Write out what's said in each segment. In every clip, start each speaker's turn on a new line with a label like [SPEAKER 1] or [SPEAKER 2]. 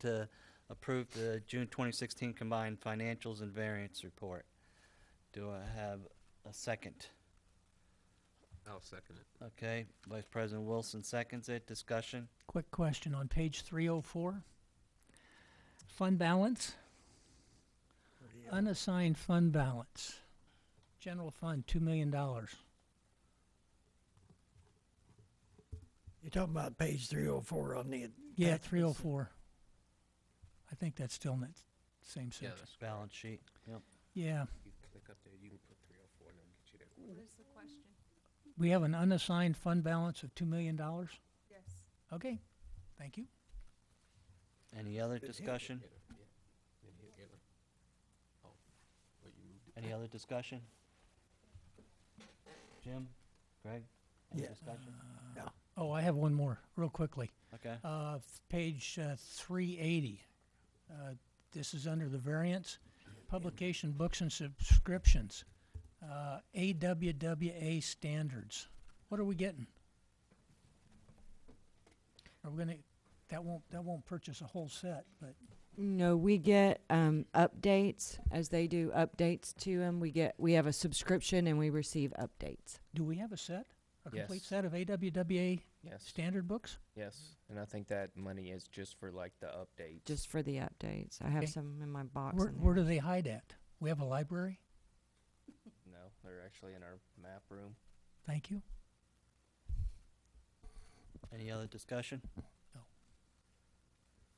[SPEAKER 1] to approve the June 2016 combined financials and variance report. Do I have a second?
[SPEAKER 2] I'll second it.
[SPEAKER 1] Okay, Vice President Wilson seconds it. Discussion?
[SPEAKER 3] Quick question on page three oh four. Fund balance, unassigned fund balance, general fund, two million dollars.
[SPEAKER 4] You're talking about page three oh four on the.
[SPEAKER 3] Yeah,
[SPEAKER 4] attachments.
[SPEAKER 3] three oh four. I think that's still in that same section.
[SPEAKER 1] Balance sheet. Yep.
[SPEAKER 3] Yeah,
[SPEAKER 2] You click up there, you can put three oh four and it'll get you there.
[SPEAKER 5] What is the question?
[SPEAKER 3] we have an unassigned fund balance of two million dollars.
[SPEAKER 5] Yes.
[SPEAKER 3] Okay, thank you.
[SPEAKER 1] Any other discussion?
[SPEAKER 2] Hit her, yeah. Then hit enter. Oh, well, you moved it.
[SPEAKER 1] Any other discussion? Jim? Greg? Any
[SPEAKER 4] Yeah.
[SPEAKER 1] discussion?
[SPEAKER 3] Oh, I have one more, real quickly.
[SPEAKER 1] Okay.
[SPEAKER 3] Uh, f- Page uh, 380. Uh, This is under the variance, publication, books, and subscriptions. Uh, AWWA standards. What are we getting? Are we gonna, that won't, that won't purchase a whole set, but,
[SPEAKER 6] No, we get um, updates as they do updates to them. We get we have a subscription and we receive updates.
[SPEAKER 3] do we have a set? A complete
[SPEAKER 7] Yes.
[SPEAKER 3] set of AWWA
[SPEAKER 7] Yes,
[SPEAKER 3] standard books?
[SPEAKER 7] yes, and I think that money is just for like the updates.
[SPEAKER 6] Just for the updates, I have
[SPEAKER 3] Okay.
[SPEAKER 6] some in my box.
[SPEAKER 3] Where,
[SPEAKER 6] in there.
[SPEAKER 3] where do they hide at? We have a library?
[SPEAKER 7] No, they're actually in our map room.
[SPEAKER 3] Thank you.
[SPEAKER 1] Any other discussion?
[SPEAKER 3] No.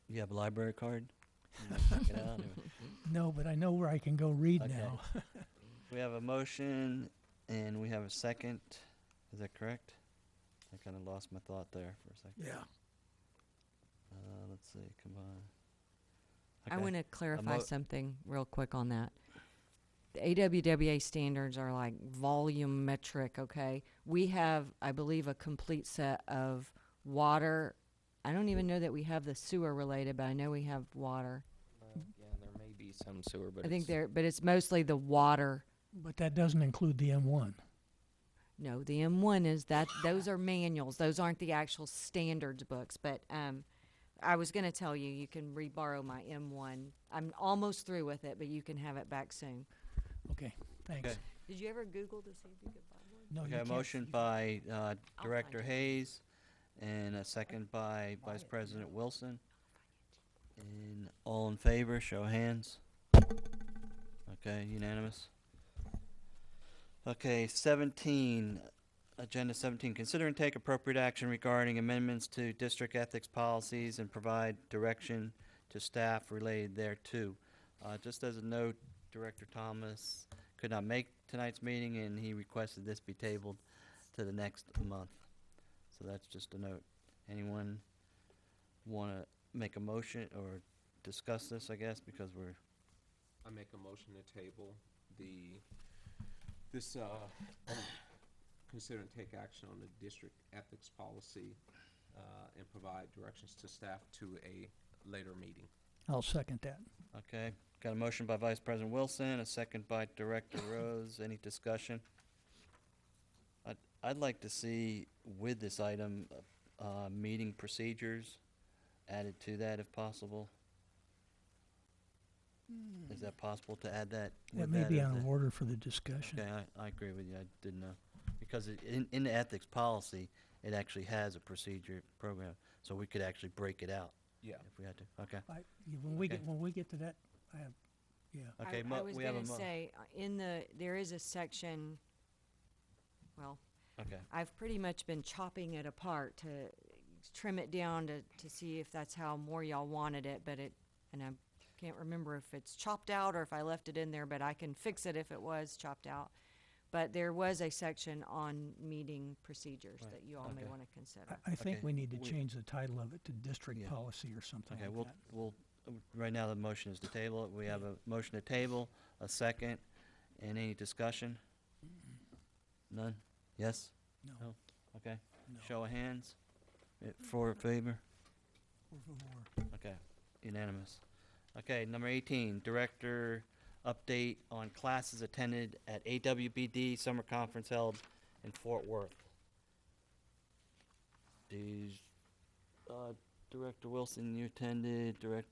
[SPEAKER 1] You have a library card? You wanna check it out, or-
[SPEAKER 3] No, but I know where I can go read
[SPEAKER 1] Okay.
[SPEAKER 3] now.
[SPEAKER 1] We have a motion and we have a second. Is that correct? I kind of lost my thought there for a second.
[SPEAKER 4] Yeah,
[SPEAKER 1] Uh, let's see, come on.
[SPEAKER 6] I want to clarify
[SPEAKER 1] mo-
[SPEAKER 6] something real quick on that. The AWWA standards are like volumetric, okay? We have, I believe, a complete set of water. I don't even know that we have the sewer related, but I know we have water.
[SPEAKER 7] Well, Uh,
[SPEAKER 1] Mm-hmm.
[SPEAKER 7] yeah, there may be some sewer, but
[SPEAKER 6] I think
[SPEAKER 7] it's-
[SPEAKER 6] there, but it's mostly the water.
[SPEAKER 3] But that doesn't include the M1.
[SPEAKER 6] No, the M1 is that, those are manuals. Those aren't the actual standards books. But um, I was going to tell you, you can reborrow my M1. I'm almost through with it, but you can have it back soon.
[SPEAKER 3] Okay, thanks.
[SPEAKER 1] Okay.
[SPEAKER 6] Did you ever Google to see if you could buy one?
[SPEAKER 3] No, you
[SPEAKER 1] Okay, a
[SPEAKER 3] can't-
[SPEAKER 1] motion
[SPEAKER 3] you-
[SPEAKER 1] by uh,
[SPEAKER 6] I'll
[SPEAKER 1] Director
[SPEAKER 6] find it.
[SPEAKER 1] Hayes and a second by Vice President Wilson. And all in favor, show of hands. Okay, unanimous. Okay, seventeen, agenda seventeen, consider and take appropriate action regarding amendments to district ethics policies and provide direction to staff related thereto. Uh, just as a note, Director Thomas could not make tonight's meeting and he requested this be tabled to the next month. So that's just a note. Anyone wanna make a motion or discuss this, I guess, because we're,
[SPEAKER 2] I make a motion to table the, this, uh, consider and take action on the district ethics policy, uh, and provide directions to staff to a later meeting.
[SPEAKER 3] I'll second that.
[SPEAKER 1] okay. Got a motion by Vice President Wilson, a second by Director Rose. Any discussion? I'd, I'd like to see with this item, uh, meeting procedures added to that if possible. Is that possible to add that?
[SPEAKER 3] Hmm. That
[SPEAKER 1] with
[SPEAKER 3] may be
[SPEAKER 1] if
[SPEAKER 3] out
[SPEAKER 1] the-
[SPEAKER 3] of order for the discussion.
[SPEAKER 1] Okay, I, I agree with you, I didn't know, because it- in, in the ethics policy, it actually has a procedure program, so we could actually break it out
[SPEAKER 2] Yeah.
[SPEAKER 1] if we had to, okay.
[SPEAKER 3] I- yeah, When we
[SPEAKER 1] Okay.
[SPEAKER 3] get, when we get to that, I have, yeah.
[SPEAKER 6] I-
[SPEAKER 1] Okay,
[SPEAKER 6] I,
[SPEAKER 1] mo-
[SPEAKER 6] was
[SPEAKER 1] we have a
[SPEAKER 6] gonna
[SPEAKER 1] mo-
[SPEAKER 6] say uh, in the there is a section. Well,
[SPEAKER 1] Okay,
[SPEAKER 6] I've pretty much been chopping it apart to trim it down to to see if that's how more y'all wanted it, but it and I can't remember if it's chopped out or if I left it in there, but I can fix it if it was chopped out. But there was a section on meeting procedures
[SPEAKER 1] Right,
[SPEAKER 6] that you all may
[SPEAKER 1] okay.
[SPEAKER 6] want to consider.
[SPEAKER 3] I, I think
[SPEAKER 1] Okay,
[SPEAKER 3] we need to
[SPEAKER 1] we-
[SPEAKER 3] change the title of it to district
[SPEAKER 1] Yeah.
[SPEAKER 3] policy or something
[SPEAKER 1] okay,
[SPEAKER 3] like
[SPEAKER 1] we'll,
[SPEAKER 3] that.
[SPEAKER 1] we'll, uh, right now the motion is to table, it. we have a motion to table, a second, and any discussion? None? Yes?
[SPEAKER 3] No,
[SPEAKER 1] no. Okay,
[SPEAKER 3] no,
[SPEAKER 1] show of hands, Uh, for favor?
[SPEAKER 3] we're for more.
[SPEAKER 1] Okay, unanimous. Okay, number eighteen, director update on classes attended at AWBD summer conference held in Fort Worth. These, uh, Director Wilson, you attended, Director